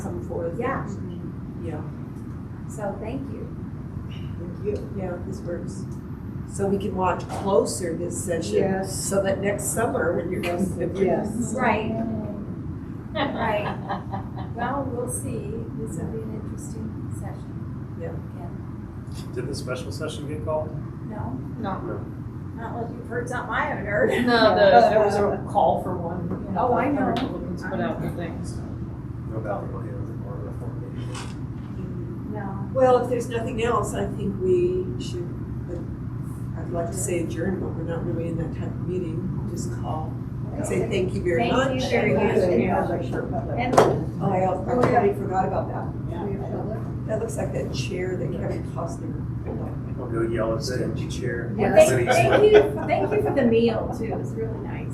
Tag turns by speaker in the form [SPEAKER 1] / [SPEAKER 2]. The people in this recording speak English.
[SPEAKER 1] forth.
[SPEAKER 2] Yeah,
[SPEAKER 1] Yeah,
[SPEAKER 2] so thank you.
[SPEAKER 1] thank you. Yeah, this works. So we can watch closer this session.
[SPEAKER 3] Yes.
[SPEAKER 1] So that next summer, when you're going to.
[SPEAKER 3] Yes.
[SPEAKER 2] Right, right. Well, we'll see. This will be an interesting session.
[SPEAKER 1] Yeah.
[SPEAKER 4] Did the special session get called?
[SPEAKER 2] No,
[SPEAKER 5] No,
[SPEAKER 2] not unless you've heard something I haven't heard.
[SPEAKER 5] no, the, there was a call for one. you know,
[SPEAKER 2] Oh, I know.
[SPEAKER 5] Republicans put out the things.
[SPEAKER 4] No ballot, or a formation.
[SPEAKER 2] No.
[SPEAKER 1] Well, if there's nothing else, I think we should, uh, I'd like to say adjourn, but we're not really in that type of meeting. Just call and say thank you very
[SPEAKER 2] Thank
[SPEAKER 1] much.
[SPEAKER 2] you very much. And
[SPEAKER 1] Oh, I al- I totally forgot about that.
[SPEAKER 3] Yeah.
[SPEAKER 1] That looks like that chair that Kevin Costner.
[SPEAKER 4] I'll go yell at the empty chair.
[SPEAKER 2] and thank,
[SPEAKER 4] Please.
[SPEAKER 2] thank you, thank you for the meal too. It was really nice.